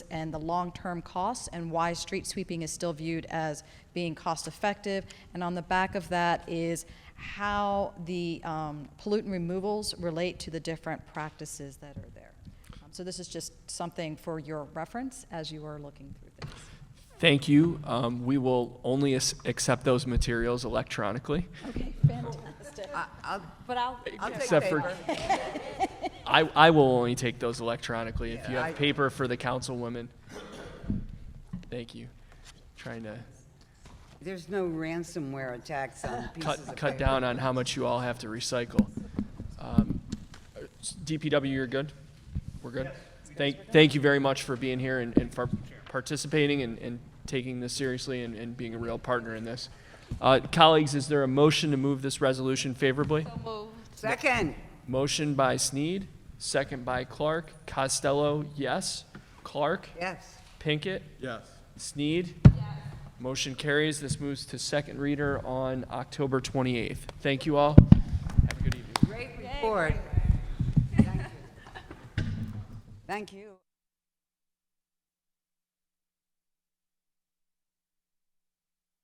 and the long-term costs and why street sweeping is still viewed as being cost-effective. And on the back of that is how the um, pollutant removals relate to the different practices that are there. Um, So this is just something for your reference as you are looking through this. Thank you. Um, we will only as- accept those materials electronically. Okay, fantastic. But I'll, I'll take Except for- paper. I, I will only take those electronically. If you Yeah, have I- paper for the councilwomen, thank you. Trying to There's no ransomware attacks on pieces of cut, paper. cut down on how much you all have to recycle. Um, DPW, you're good? We're good? Thank, thank you very much for being here and, and for participating and, and taking this seriously and, and being a real partner in this. Uh, colleagues, is there a motion to move this resolution favorably? Second, Motion by Sneed, second by Clark. Costello, yes. Clark, yes. Pinkett, Yes. Sneed. Motion carries. This moves to second reader on October 28th. Thank you all. Have a good evening. Great report. Thank you. Thank you.